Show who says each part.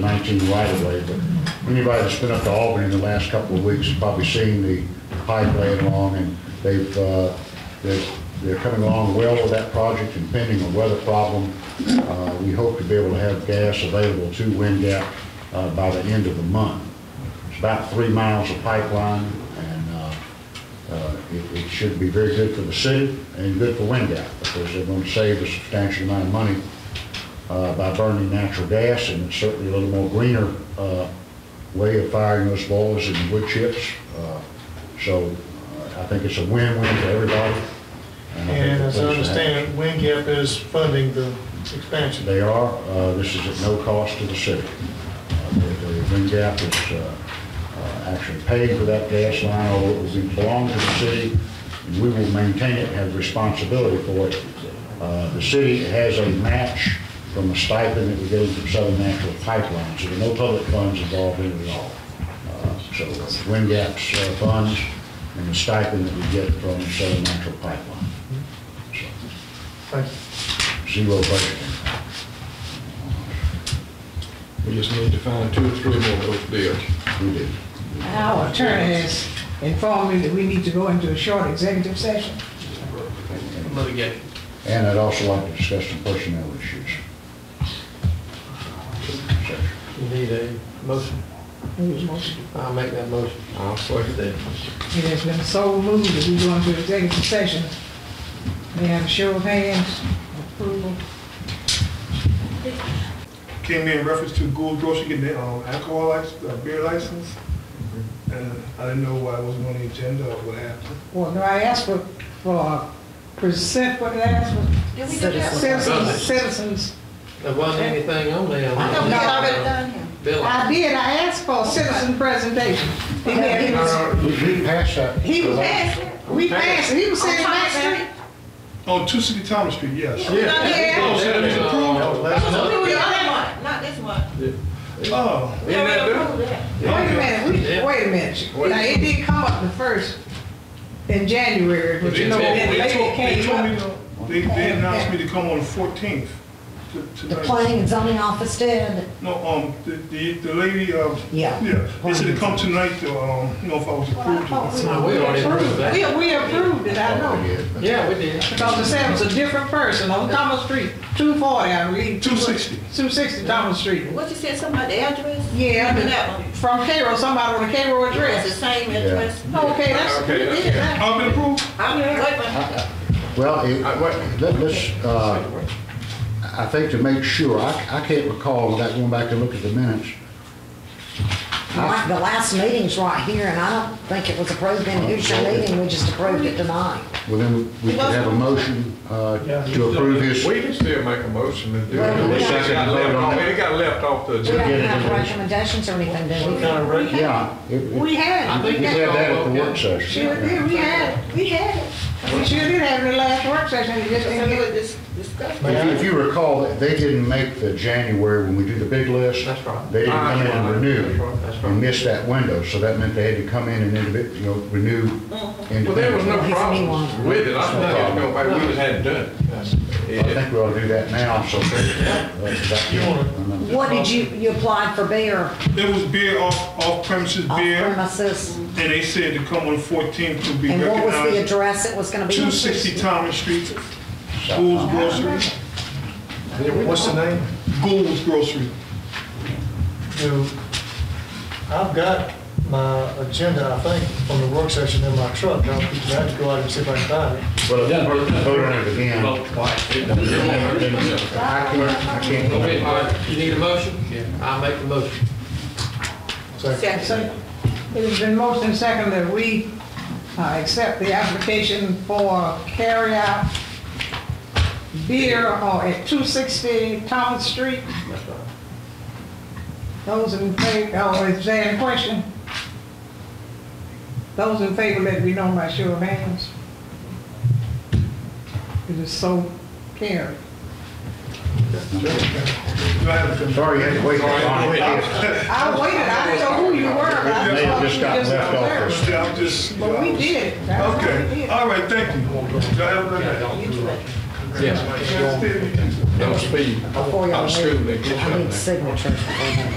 Speaker 1: 19 right away, but anybody that's been up to Albany in the last couple of weeks has probably seen the pipe laying along, and they've, uh, they're, they're coming along well with that project and pending a weather problem. Uh, we hope to be able to have gas available to Wind Gap, uh, by the end of the month. It's about three miles of pipeline, and, uh, uh, it, it should be very good for the city and good for Wind Gap, because they're gonna save a substantial amount of money uh, by burning natural gas, and it's certainly a little more greener uh, way of firing those boilers and wood chips. Uh, So uh, I think it's a win-win for everybody. I think
Speaker 2: And
Speaker 1: the
Speaker 2: as I
Speaker 1: place
Speaker 2: understand it, Wingap is funding the
Speaker 1: has-
Speaker 2: expansion.
Speaker 1: They are, uh, this is at no cost to the city. Uh, The the Green Gap is uh, uh, actually paid for that gas line, although it was- it belonged to the city, and we will maintain it, have responsibility for it. Uh, The city has a match from a stipend that we gave from Southern Natural Pipeline, so there are no public funds involved in it at all. Uh, So it's Green Gap's uh, funds and the stipend that we get from Southern Natural Pipeline. So,
Speaker 2: Thank you.
Speaker 1: Zero budgeting.
Speaker 3: We just need to find two or three more of those bills.
Speaker 1: We did.
Speaker 4: Our attorney has informed me that we need to go into a short executive session.
Speaker 5: litigate.
Speaker 1: And I'd also like to discuss some personnel issues.
Speaker 5: You need a motion?
Speaker 4: Who's motion?
Speaker 5: I'll make that motion.
Speaker 3: I'll second that.
Speaker 4: It has been so moved that we go into executive session. May I have a show of hands, approval?
Speaker 6: came in reference to Gould Grocery getting their um, alcohol license, uh, beer license. And I didn't know why it wasn't on the agenda or what happened.
Speaker 4: Well, no, I asked for, for present, what did I ask for?
Speaker 7: Did we do that?
Speaker 4: Citizens, citizens.
Speaker 5: There wasn't anything on there.
Speaker 7: I thought we had already done him.
Speaker 5: Bill,
Speaker 4: I did, I asked for a citizen presentation. He had- he was-
Speaker 1: We passed that.
Speaker 4: He was passing, we passed, it. he was sitting
Speaker 7: Thomas
Speaker 4: next to me.
Speaker 6: On Oh, Two City Thomas Street, yes.
Speaker 4: Yeah.
Speaker 7: So
Speaker 3: Yeah.
Speaker 7: we do the other one, not this one.
Speaker 6: Oh,
Speaker 7: We already approved that.
Speaker 4: Wait a minute, we,
Speaker 5: Yeah.
Speaker 4: wait a minute. Now, it did come up the first, in January, but
Speaker 6: they
Speaker 4: you know,
Speaker 6: told,
Speaker 4: then
Speaker 6: they
Speaker 4: later
Speaker 6: told,
Speaker 4: it
Speaker 6: they told me,
Speaker 4: came up.
Speaker 6: to- they, they announced me to come on the fourteenth.
Speaker 8: The planning and zoning office did,
Speaker 6: No, um, the, the, the lady, um.
Speaker 8: Yeah.
Speaker 6: Yeah, they said to come tonight to, um, you know, if I was approved. or not.
Speaker 5: no, we already approved
Speaker 4: We,
Speaker 5: that.
Speaker 4: we approved it, I know,
Speaker 5: Yeah, we did.
Speaker 4: because it said it was a different person on Thomas Street, two forty, I believe.
Speaker 6: 260.
Speaker 4: Two sixty Thomas Street.
Speaker 7: What you said, something about the address?
Speaker 4: Yeah,
Speaker 7: Remember
Speaker 4: but
Speaker 7: that one?
Speaker 4: from Cairo, somebody on a Cairo
Speaker 7: It's the
Speaker 4: address.
Speaker 7: same address.
Speaker 4: Okay, that's, we
Speaker 3: Okay,
Speaker 4: did that.
Speaker 6: I've been approved?
Speaker 7: I'm gonna wait for him.
Speaker 1: Well, it-
Speaker 3: I- what-
Speaker 1: let- let's, uh, I think to make sure, I, I can't recall without going back and look at the minutes.
Speaker 8: like, the last meeting's right here, and I don't think it was approved in the usual meeting, we just approved it tonight.
Speaker 1: Well, then we could have a motion uh, to approve his.
Speaker 3: We can still make a motion and do it.
Speaker 8: Well, we
Speaker 3: It
Speaker 8: got-
Speaker 3: got left off- it got left off the
Speaker 8: We
Speaker 3: agenda.
Speaker 8: don't
Speaker 1: get it
Speaker 8: have
Speaker 1: in.
Speaker 8: recommendations or anything, do we?
Speaker 5: Kind of rate.
Speaker 1: Yeah. it- it-
Speaker 4: We
Speaker 1: We
Speaker 4: had
Speaker 5: I
Speaker 4: it.
Speaker 5: think
Speaker 1: had that at the work
Speaker 4: Sure did,
Speaker 1: session.
Speaker 4: we had it, we had it. We sure did have it in the last work session, it just
Speaker 7: So
Speaker 4: didn't
Speaker 7: we
Speaker 4: get
Speaker 7: would dis- discuss.
Speaker 1: If you- if you recall, they didn't make the January when we do the big list.
Speaker 5: That's right.
Speaker 1: They didn't come in and
Speaker 3: That's
Speaker 1: renew
Speaker 3: right, that's right.
Speaker 1: and missed that window, so that meant they had to come in and, indivi- you know, renew independently.
Speaker 3: Well, there was no
Speaker 8: He's a new
Speaker 3: problem
Speaker 8: one.
Speaker 3: with it. I thought it was going, we just hadn't done
Speaker 1: I
Speaker 3: it.
Speaker 1: think we ought to do that now, so.
Speaker 8: What did you, you applied for beer uh,
Speaker 6: There was beer off, off premises
Speaker 8: off
Speaker 6: beer,
Speaker 8: premises,
Speaker 6: and they said to come on the fourteenth to be
Speaker 8: and
Speaker 6: recognized.
Speaker 8: what was the address it was gonna be?
Speaker 6: 260 Thomas Street, Gould's Grocery.
Speaker 2: What's the name?
Speaker 6: Gould's Grocery.
Speaker 2: Do, I've got my agenda, I think, from the work session in my truck. I'll have to go out and see if I can find it.
Speaker 1: Well, if you vote vote on it again, I
Speaker 3: Yeah.
Speaker 1: can't, I can't.
Speaker 5: Okay, all right, you need a motion? Yeah. I'll make the motion.
Speaker 4: it. So It has been motion and second that we uh, accept the application for carryout beer or at 260 Thomas Street. Those in favor, oh, is there any question? Those in favor, let me know by show of hands. It is so carried.
Speaker 6: Do I have a-
Speaker 1: Sorry, you had to wait.
Speaker 4: I waited, I didn't know who you were, but I
Speaker 1: They
Speaker 4: thought you
Speaker 1: just got
Speaker 4: just
Speaker 1: left off
Speaker 4: observed.
Speaker 1: first.
Speaker 6: Yeah, I'm just. uh,
Speaker 4: But we did. it. That's what we
Speaker 6: Okay,
Speaker 4: did.
Speaker 6: all right, thank you. Do I have a-
Speaker 5: Yeah.
Speaker 6: Can I stay?
Speaker 8: Before y'all
Speaker 3: I'm
Speaker 8: leave,
Speaker 3: screwed.
Speaker 8: I need signatures before that.